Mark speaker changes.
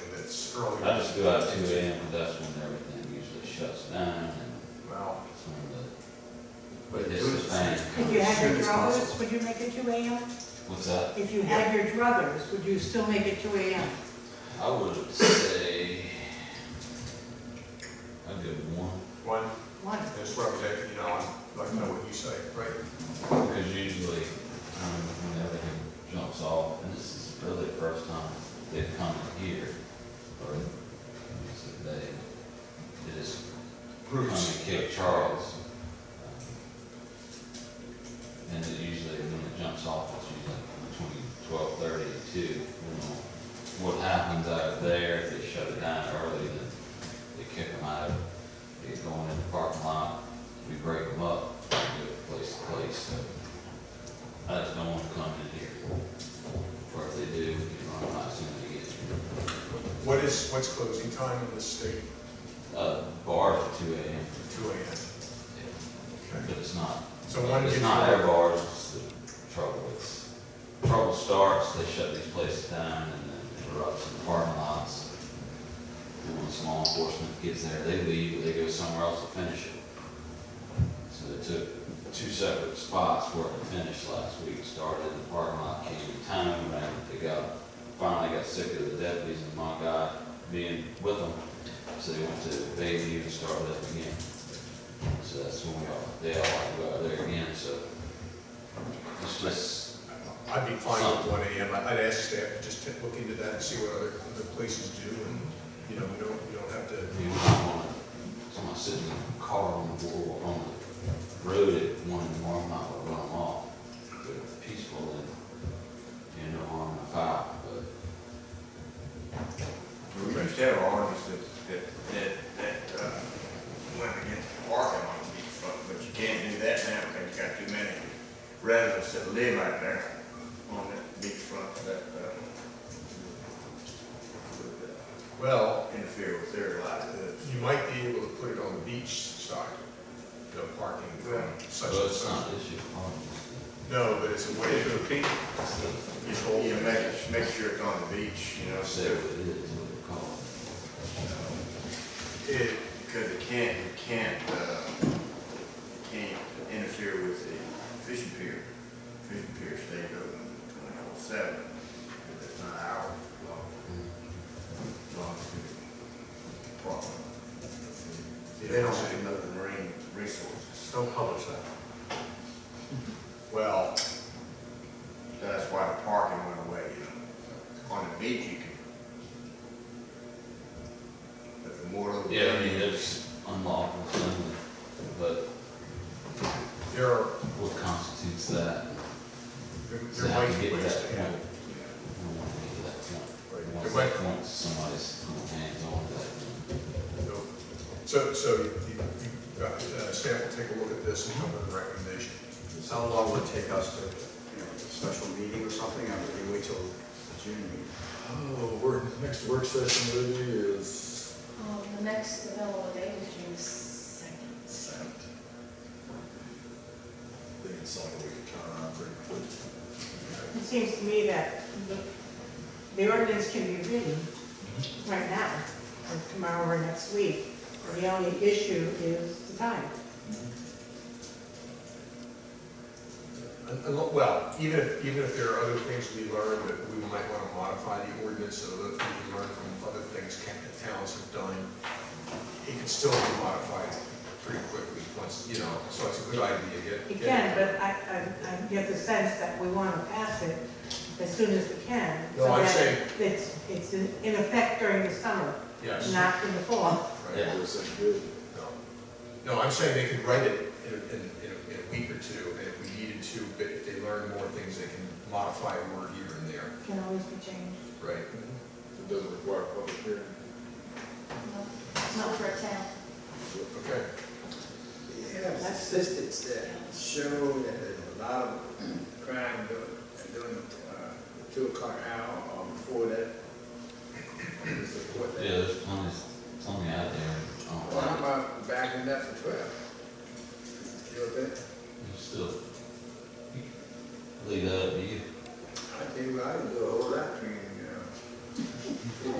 Speaker 1: earlier.
Speaker 2: I just go out two AM, 'cause that's when everything usually shuts down and
Speaker 1: Well,
Speaker 2: some of
Speaker 1: but
Speaker 2: the,
Speaker 1: do it as
Speaker 2: this is
Speaker 1: soon as-
Speaker 2: thing.
Speaker 3: If you
Speaker 1: as
Speaker 3: had
Speaker 1: soon
Speaker 3: your
Speaker 1: as possible.
Speaker 3: druthers, would you make it two AM?
Speaker 2: What's that?
Speaker 3: If you had your druthers, would you still make it two AM?
Speaker 2: I would say, I'd go one,
Speaker 1: One,
Speaker 3: One.
Speaker 1: just represent, you know, I'd like to know what you say, right?
Speaker 2: because usually, um, when everything jumps off, and this is really the first time they've come here, or, it's a they, they just come
Speaker 1: Bruce.
Speaker 2: and kill Charles. And it usually, when it jumps off, it's usually between twelve thirty and two, you know. What happens out there, if they shut it down early, then they kick them out, they get going in the parking lot, we break them up, we go place to place, so. I just don't wanna come in here, or if they do, you know, I'm not assuming they get,
Speaker 1: What is, what's closing time in this state?
Speaker 2: uh, bars at two AM.
Speaker 1: Two AM. Okay.
Speaker 2: But it's not,
Speaker 1: So one
Speaker 2: it's
Speaker 1: gives
Speaker 2: not
Speaker 1: you-
Speaker 2: our bars, it's the trouble, it's, trouble starts, they shut these places down and then it erupts in the parking lots. And once law enforcement gets there, they leave, or they go somewhere else to finish it. So they took two separate spots where it finished last week, started in the parking lot, came to town, ran, they got, finally got sick of the deputies and my guy being with them. So they went to Bayview and started up again. So that's when we all, they all go out there again, so it's just,
Speaker 1: I'd be fine with one AM. I- I'd ask staff to just take- look into that and see what other, other places do and, you know, we don't, we don't have to,
Speaker 2: you know, I wanna, someone sitting in a car on the wall, on the road at one in the morning, I would run them off. But it's peaceful and, you know, on the foul, but
Speaker 4: We used to have ordinance that, that, that, that, uh, went against the parking on beachfront, but you can't do that now because you got too many residents that live out there on that beachfront that, uh, would uh,
Speaker 1: well,
Speaker 4: interfere with their livelihoods.
Speaker 1: you might be able to put it on the beach side, the parking from such
Speaker 2: but
Speaker 1: and
Speaker 2: it's not
Speaker 1: such.
Speaker 2: an issue problem.
Speaker 1: No, but it's a way to appeal.
Speaker 2: It's the,
Speaker 1: It's
Speaker 4: You
Speaker 1: whole
Speaker 4: know,
Speaker 1: thing.
Speaker 4: make, make sure it's on the beach, you know,
Speaker 2: I
Speaker 4: so,
Speaker 2: said what it is, what it's called.
Speaker 1: It,
Speaker 4: because it can't, it can't, uh, it can't interfere with the fishing pier. Fishing pier stays open twenty-four seven, it's not hours long, long as the problem. They don't have enough marine resources,
Speaker 1: Don't publish that. Well,
Speaker 4: that's why the parking went away, you know, on the beach you can. But the more. of the-
Speaker 2: Yeah, I mean, there's unlawful, thing, but
Speaker 1: there are,
Speaker 2: what constitutes that?
Speaker 1: there
Speaker 2: So
Speaker 1: there
Speaker 2: how do
Speaker 1: might be
Speaker 2: you get to
Speaker 1: ways
Speaker 2: that
Speaker 1: to
Speaker 2: point?
Speaker 1: handle it.
Speaker 2: We don't want to get to that
Speaker 1: Right.
Speaker 2: point. Once
Speaker 1: Right.
Speaker 2: that point, somebody's hands on to that.
Speaker 1: So, so you, you, uh, staff will take a look at this and come with a recommendation.
Speaker 5: How long would it take us to, you know, a special meeting or something, I would wait till the June meeting.
Speaker 6: Oh, we're, next work session really is,
Speaker 7: Um, the next available date is June second.
Speaker 6: I think it's something we can turn around pretty quick.
Speaker 3: It seems to me that the- the ordinance can be written
Speaker 1: Mm-hmm.
Speaker 3: right now, or tomorrow or next week. The only issue is the time.
Speaker 1: Un- un- Well, even if, even if there are other things we learn that we might want to modify the ordinance so that we can learn from other things ca- that towns have done, it can still be modified pretty quickly once, you know, so it's a good idea, get.
Speaker 3: It
Speaker 1: get-
Speaker 3: can, but I, I, I get the sense that we want to pass it as soon as we can.
Speaker 1: No,
Speaker 3: so
Speaker 1: I'm
Speaker 3: that
Speaker 1: saying-
Speaker 3: It's, it's in in effect during the summer,
Speaker 1: Yes.
Speaker 3: not in the fall.
Speaker 1: right.
Speaker 2: Yeah.
Speaker 6: Work session good.
Speaker 1: No, No, I'm saying they could write it in, a- in, in a- in a week or two, and if we needed to, but if they learn more things, they can modify a word here and there,
Speaker 3: Can always be changed.
Speaker 1: right?
Speaker 6: It doesn't require a public hearing.
Speaker 7: Not for a town.
Speaker 1: Okay,
Speaker 4: Yeah.
Speaker 5: Yeah, statistics that show that there's a lot of crime during, during the, uh, um, the two o'clock hour or before that. I would Support
Speaker 2: Yeah,
Speaker 5: that.
Speaker 2: there's plenty, of-